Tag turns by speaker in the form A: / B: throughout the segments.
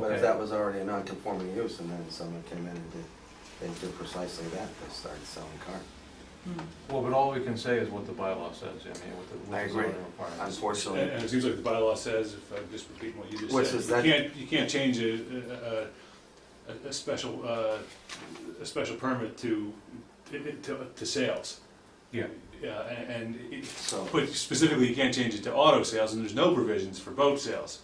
A: Because that was already a non-conforming use, and then someone came in and did, they did precisely that, they started selling cars.
B: Well, but all we can say is what the bylaw says, I mean, what the,
A: I
B: what the
A: agree.
B: zoning requirements.
C: And
A: Unfortunately,
C: and it seems like the bylaw says, if I'm just repeating what you
A: Which
C: just
A: is
C: said,
A: that-
C: you can't, you can't change a, a- a, a special, uh, a special permit to, to, to sales.
B: Yeah.
C: Yeah, and, and it-
A: so,
C: but specifically, you can't change it to auto sales, and there's no provisions for boat sales.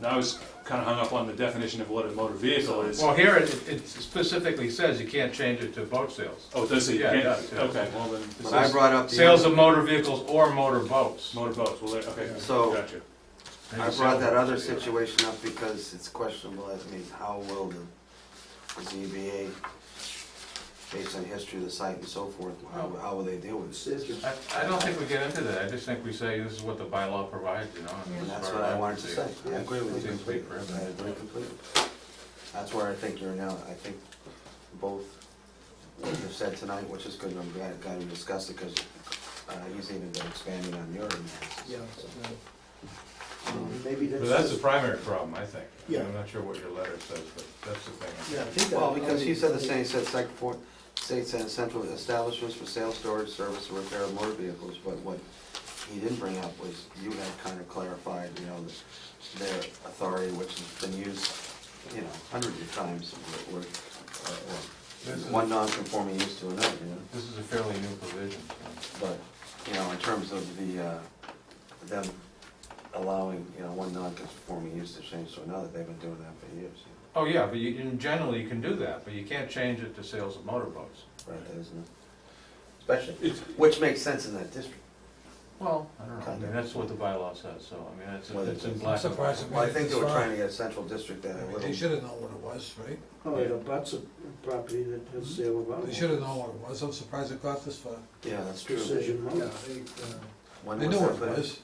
C: And I was kinda hung up on the definition of what a motor vehicle is.
B: Well, here it, it specifically says you can't change it to boat sales.
C: Oh, it does say you
B: Yeah, it
C: can't,
B: does, yeah.
C: okay, well then, it
A: but I
C: says
A: brought up
B: Sales
A: the,
B: of motor vehicles or motor boats.
C: motor boats, well, there- okay,
A: So-
C: gotcha.
A: I brought that other situation up because it's questionable, as means how will the ZBA, based on history of the site and so forth, how, how will they deal with it?
B: I, I don't think we get into that, I just think we say this is what the bylaw provides, you know. this
A: And
B: is
A: that's
B: our
A: what I wanted to say, I
B: Yeah.
A: agree with you
B: Seems to be
A: completely, I
B: prohibited.
A: agree completely. That's where I think you're now, I think both, what you've said tonight, which is good, and I'm glad, glad we discussed it, because he's even been expanding on your analysis.
D: Yeah,
A: so.
D: um, maybe that's.
B: But that's the primary problem, I think.
D: Yeah.
B: I'm not sure what your letter says, but that's the thing.
D: Yeah, I think that.
A: Well, because he said the same, he said site for, states and central establishments for sale, storage, service, or repair of motor vehicles, but what he didn't bring up was, you had kind of clarified, you know, their authority, which has been used, you know, hundreds of times, or, or, or
B: This is-
A: uh, one non-conforming use to another, you know?
B: This is a fairly new provision, so.
A: But, you know, in terms of the, uh, them allowing, you know, one non-conforming use to change to another, they've been doing that for years, you
B: Oh, yeah, but you, in general, you can do that, but you can't change it to sales of motorboats.
A: know, right, there, isn't it? Especially,
C: It's-
A: which makes sense in that district.
B: Well, I don't know, I
A: Kind of.
B: mean, that's what the bylaw says, so, I mean, it's,
A: Well,
B: it's in
A: it's-
B: black. and white.
E: Surprising.
A: Well, I think they were trying to get a central district that had a
E: They
A: little,
E: should have known what it was, right?
D: Oh, it abuts a property that has sale of
E: They
D: alcohol.
E: should have known what it was, I'm surprised it got this far.
A: yeah, that's true.
D: Precision
E: Yeah,
D: mowing.
E: they,
A: When
E: they
A: was
E: knew
A: that
E: what
A: put
E: it
A: in?
E: was,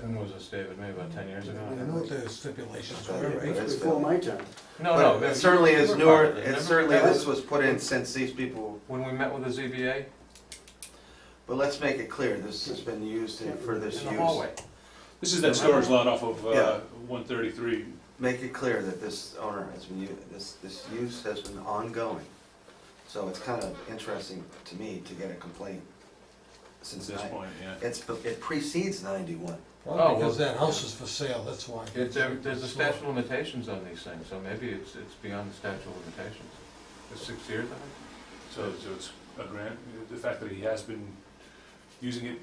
B: When was this, David, maybe about ten years ago?
E: they knew what the stipulations
A: Yeah,
E: were,
A: but
E: right?
D: It's
A: it's
D: before
A: been-
D: my time.
B: No, no.
A: But it certainly is newer, it
B: Remember
A: certainly,
B: that?
A: this was put in since these people,
B: When we met with the ZBA?
A: but let's make it clear, this has been used in- for this
B: In the
A: use.
B: hallway.
C: This is that storage lot off of,
A: Yeah.
C: uh, one thirty-three,
A: Make it clear that this owner has been, u- this, this use has been ongoing. So it's kind of interesting to me to get a complaint
C: at
A: since
C: this
A: nine,
C: point, yeah.
A: it's, it precedes ninety-one.
B: Oh,
E: Well,
B: well-
E: because that house is for sale, that's why.
B: It's, there- there's a statute of limitations on these things, so maybe it's, it's beyond the statute of limitations. It's six years, I think.
C: So, so it's a grant, the fact that he has been using it,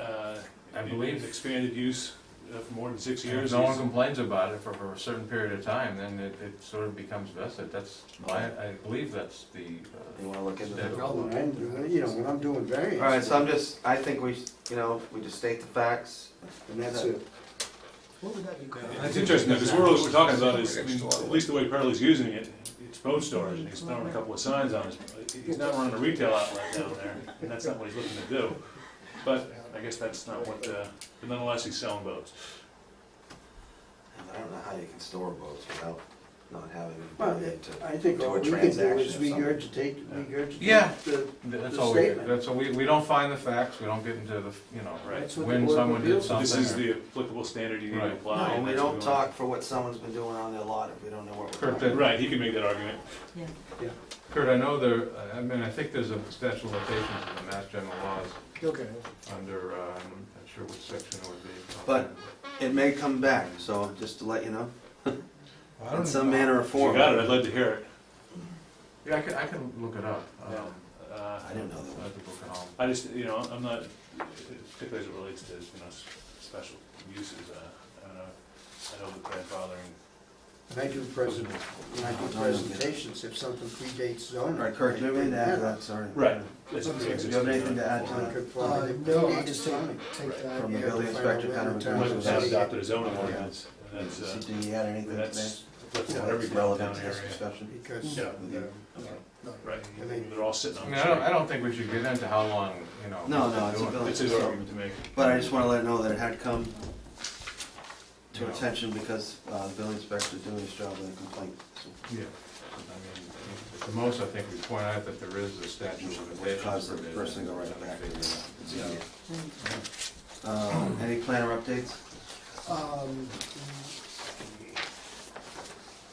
C: uh,
B: I
C: in-
B: believe-
C: in expanded use uh, for more than six
B: If
C: years.
B: no one
C: he's-
B: complains about it for, for a certain period of time, then it, it sort of becomes vested, that's, I, I believe that's the,
A: You
B: uh,
A: wanna look into that?
B: Statute.
D: When I'm doing- uh, You know, when I'm doing variance.
A: All right, so I'm just, I think we, s- you know, we just state the facts.
D: And that's it.
E: What would that be called?
C: It's interesting, because we're, we're talking about is, I mean, at least the way Pearlie's using it, it's boat storage, and he's throwing a couple of signs on it. He's not running a retail outlet down there, and that's not what he's looking to do. But I guess that's not what, uh, but nonetheless, he's selling boats.
A: I don't know how you can store boats without not having the
D: Well,
A: ability to.
D: I think
A: Do a
D: all we can do is
A: transaction or
D: regurgitate, regurgitate.
B: Yeah.
D: the-
B: that's
D: The
B: all we, do.
D: statement.
B: that's all, we, we don't find the facts, we don't get into the, you know,
C: Right.
D: That's what the
B: when
D: Board of
B: someone did
D: Appeals-
B: something.
C: This is
B: or-
C: the applicable standard you need
B: Right.
C: to apply.
A: No,
C: and
A: we
C: that's what
A: don't
C: we want.
A: talk for what someone's been doing on their lot if we don't know what we're
B: Correct.
A: talking.
C: Right, he can make that argument.
B: Kurt, I know there, I mean, I think there's a statute of limitations in the Mass General laws
E: Okay,
B: under, um, I'm not sure which section it would be.
A: But- It may come back, so just to let you know,
E: Well, I
A: in
E: don't
A: some
E: know.
A: manner or
C: If you
A: form.
C: got it, I'd love to hear it.
B: Yeah, I can, I can look it up. um,
C: Yeah. Uh,
A: I didn't know
B: so
A: that.
B: that people can all-
C: I just, you know, I'm not, particularly as it relates to, you know, s- special uses, uh, I don't know, I know the grandfathering.
D: When I do present, when I do presentations, if something predates
A: All
D: zoning.
A: right, Kirk, do you have anything to add to that, sorry?
C: Right. that's
D: Do you have
C: pre-existing,
A: anything to add to
C: non-conforming.
E: Uh,
D: Non-conforming,
E: no, I
D: predates
E: just
D: zoning.
E: take, take that.
A: From the
D: Yeah,
A: building
D: we'll
A: inspector
D: find out
A: kind of
D: what
A: reviewed
D: town
C: Might
A: it.
C: as well
D: it
C: have
D: is.
C: adopted a zoning
A: Yeah.
C: ordinance, and that's, uh,
A: Did you add anything
C: and
A: to
C: that's,
A: that?
C: that's
D: Yeah,
C: what every
A: That's relevant
C: downtown
A: to
C: area.
A: this discussion?
D: Because,
C: Yeah.
D: um,
A: Okay.
E: No.
C: Right,
D: I mean-
C: they're all sitting
B: I
C: on
B: mean,
C: the
B: I don't,
C: street.
B: I don't think we should get into how long, you know.
A: No,
B: we've been
A: no, it's a
B: doing
A: bill-
C: It's
A: it's
C: his
A: a-
C: argument to make.
A: But I just wanna let it know that it had come
B: it, you
A: to
B: know.
A: attention because, uh, the building inspector's doing his job with a complaint, so.
B: Yeah, I mean, at the most, I think we point out that there is a statute of
A: Which
B: limitations.
A: caused the
B: provision.
A: person to go right back.
E: Yeah.
A: Um, Any planner updates?
E: Um,